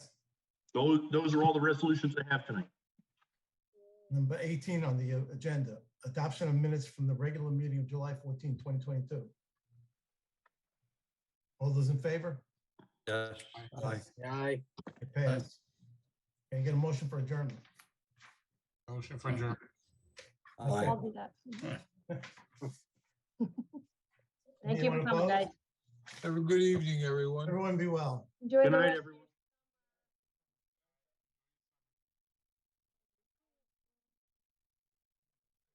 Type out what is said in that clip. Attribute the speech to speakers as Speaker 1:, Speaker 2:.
Speaker 1: Those, those are all the resolutions I have tonight.
Speaker 2: Number 18 on the uh, agenda, adoption of minutes from the regular meeting of July 14, 2022. All those in favor?
Speaker 3: Yes.
Speaker 2: Uh,
Speaker 3: Aye.
Speaker 4: Aye.
Speaker 2: It passed. Can I get a motion for adjournment?
Speaker 5: Motion for adjournment.
Speaker 3: Aye.
Speaker 6: I'll do that. Thank you
Speaker 2: Anyone
Speaker 6: for coming,
Speaker 2: opposed?
Speaker 6: guys.
Speaker 5: Have a good evening, everyone.
Speaker 2: Everyone be well.
Speaker 6: Enjoy
Speaker 1: Good
Speaker 6: the
Speaker 1: night,
Speaker 6: rest of
Speaker 1: everyone.